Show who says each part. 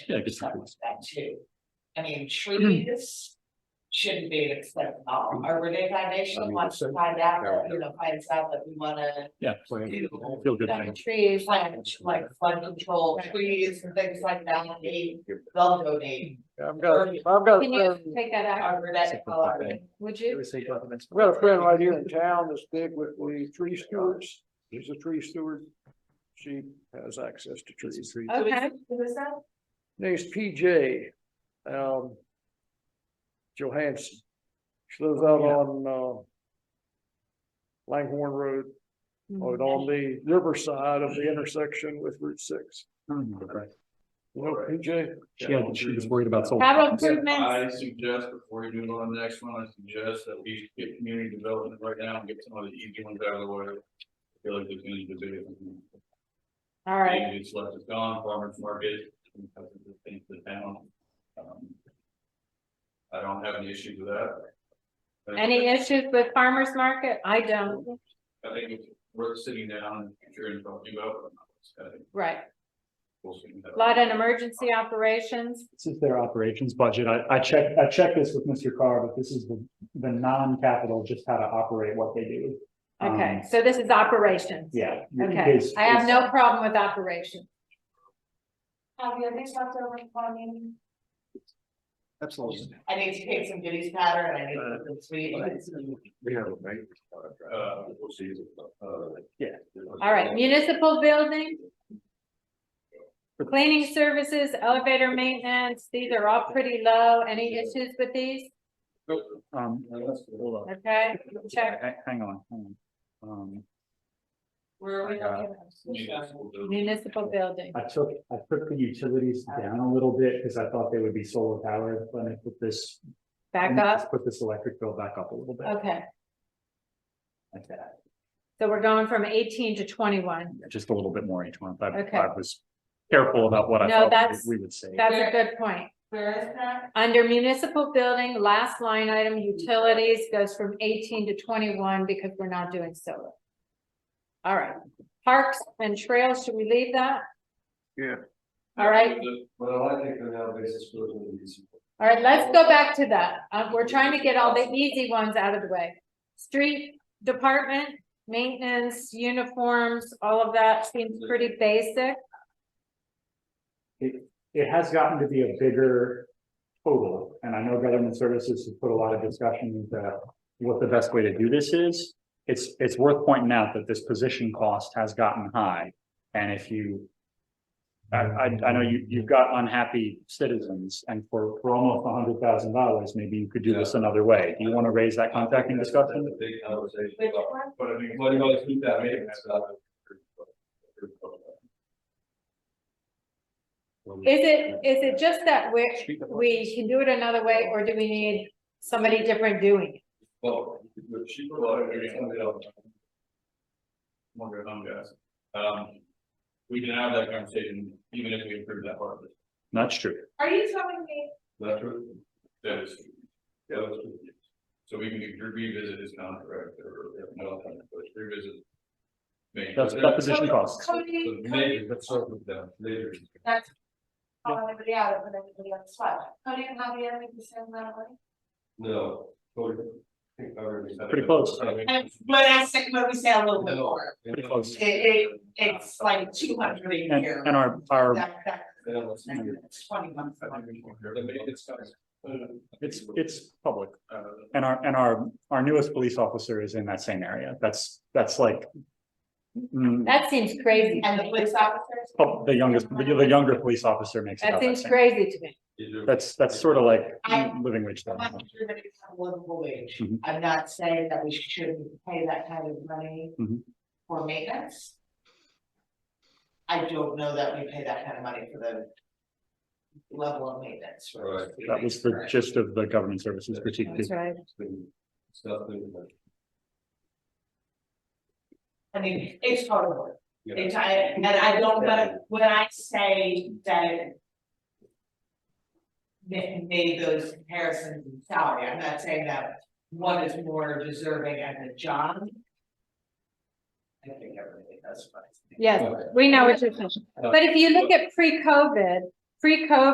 Speaker 1: Yeah, I guess we
Speaker 2: Something
Speaker 1: could.
Speaker 2: like that too. I
Speaker 3: Mm-hmm.
Speaker 2: mean, trees shouldn't be an except
Speaker 1: Mm-hmm.
Speaker 2: all, or Renee Foundation wants to find out, that, you know, finds out that we wanna
Speaker 1: Yeah,
Speaker 2: do.
Speaker 1: feel good
Speaker 2: Like
Speaker 1: thing.
Speaker 2: trees, like, like flood control trees and things like that, they, they'll donate.
Speaker 4: I've got, I've got,
Speaker 3: Can you
Speaker 4: um,
Speaker 3: take that out,
Speaker 2: Our Renee, our,
Speaker 3: Oh, would you?
Speaker 4: I've got a friend right here in town that's big with the tree stewards. She's a tree steward. She has access to trees.
Speaker 3: Okay,
Speaker 2: who is that?
Speaker 4: Name's PJ, um, Johansson. She lives out on, uh, Langhorne Road,
Speaker 1: Oh,
Speaker 4: or on the riverside of the intersection with Route Six. You know PJ?
Speaker 1: She had, she was worried about solar.
Speaker 3: capital
Speaker 1: panels.
Speaker 3: improvements,
Speaker 5: I suggest before you do it on the next one, I suggest that we get community development right now and get some of the easy ones out of the way. I Feel like there's gonna be debate.
Speaker 3: all right,
Speaker 5: Maybe it's left is gone, farmers market, because of the things that town. um, I don't have any issues with that. I think-
Speaker 3: any issues with farmer's market? I don't,
Speaker 5: I think it's worth sitting down and sure and talking about. I think
Speaker 3: right,
Speaker 5: we'll see.
Speaker 3: flood and emergency operations,
Speaker 1: This is their operations budget. I, I checked, I checked this with Mr. Carr, but this is the, the non-capital, just how to operate what they do. Um,
Speaker 3: okay, so this is operations.
Speaker 1: Yeah. in
Speaker 3: Okay,
Speaker 1: case-
Speaker 3: I have no problem with operations.
Speaker 2: Have you ever talked over in front of me?
Speaker 4: Absolutely.
Speaker 2: I need to pick some goodies powder and I need to put some
Speaker 1: Uh,
Speaker 2: sweet.
Speaker 5: We have a bank. Uh, we'll see. uh,
Speaker 1: Yeah.
Speaker 3: All right, municipal building. Cleaning services, elevator maintenance, these are all pretty low. Any issues with these?
Speaker 1: Um, hold on.
Speaker 3: Okay, check.
Speaker 1: Hang- Hang on, hang on. Um,
Speaker 2: Where are we looking?
Speaker 5: Municipal building.
Speaker 3: Municipal building,
Speaker 1: I took, I took the utilities down a little bit because I thought they would be solar powered, but I put this.
Speaker 3: back up,
Speaker 1: Put this electric bill back up a little bit.
Speaker 3: okay,
Speaker 1: like that.
Speaker 3: so we're going from eighteen to twenty-one.
Speaker 1: Just a little bit more each month. I,
Speaker 3: Okay.
Speaker 1: I was careful about what I
Speaker 3: No,
Speaker 1: thought
Speaker 3: that's-
Speaker 1: we- we would say.
Speaker 3: That's a good point.
Speaker 2: Where is that?
Speaker 3: Under municipal building, last line item, utilities goes from eighteen to twenty-one because we're not doing solar. All right, parks and trails, should we leave that?
Speaker 4: Yeah.
Speaker 3: All right,
Speaker 5: Well, I think on that basis, we'll do these.
Speaker 3: all right, let's go back to that. Uh, we're trying to get all the easy ones out of the way. Street department, maintenance, uniforms, all of that seems pretty basic.
Speaker 1: It, it has gotten to be a bigger total, and I know government services has put a lot of discussion into what the best way to do this is. It's, it's worth pointing out that this position cost has gotten high, and if you I, I, I know you, you've got unhappy citizens, and for, for almost a hundred thousand dollars, maybe you could do this another way. Do you want to raise that contracting discussion?
Speaker 5: That's a Big conversation.
Speaker 2: Which one?
Speaker 5: But I mean, what do you guys keep that meeting?
Speaker 3: Is it, is it just that we're, we can do it another way, or do we need somebody different doing it?
Speaker 5: Well, the cheaper lot, we can send it out. Wonder how, guys. Um, we can have that conversation even if we approve that part of it.
Speaker 1: That's true.
Speaker 2: Are you telling me
Speaker 5: That's true. That is. true. Yeah, that's true. So we can revisit his contract or, no, but revisit. Maybe.
Speaker 1: That's, that position costs.
Speaker 2: Cody, Cody,
Speaker 5: Maybe, but sort of them later.
Speaker 2: that's. Calling everybody out, and put everybody on the spot. Cody and Javier, we can send that away.
Speaker 5: No. Pretty
Speaker 1: Pretty close.
Speaker 2: And when I say, when we say a little bit more,
Speaker 1: Pretty close.
Speaker 2: it, it, it's like two hundred a
Speaker 1: And,
Speaker 2: year.
Speaker 1: and our, our
Speaker 2: That- that- that's Twenty-one. for one.
Speaker 1: It's, it's public,
Speaker 5: Uh,
Speaker 1: and our, and our, our newest police officer is in that same area, that's, that's like. mm,
Speaker 3: That seems crazy.
Speaker 2: And the police officers?
Speaker 1: pub- Oh, the youngest, the the younger police officer makes
Speaker 3: That
Speaker 1: about that
Speaker 3: seems
Speaker 1: same,
Speaker 3: crazy to me.
Speaker 1: that's, that's sort of like
Speaker 2: I-
Speaker 1: living wage. though.
Speaker 2: I'm not sure that it's a livable wage.
Speaker 1: Mhm.
Speaker 2: I'm not saying that we shouldn't pay that kind of money
Speaker 1: Mhm.
Speaker 2: for maintenance. I don't know that we pay that kind of money for the level of maintenance. for us.
Speaker 1: That was the gist of the government services critique,
Speaker 3: That's right.
Speaker 2: I mean, it's horrible.
Speaker 5: Yeah.
Speaker 2: It's, I, and I don't, but when I say that. it ma- made those comparisons in salary, I'm not saying that one is more deserving as a job. I think everybody does, but.
Speaker 3: Yes, we know what you're saying. But if you look at pre-COVID, pre-COVID.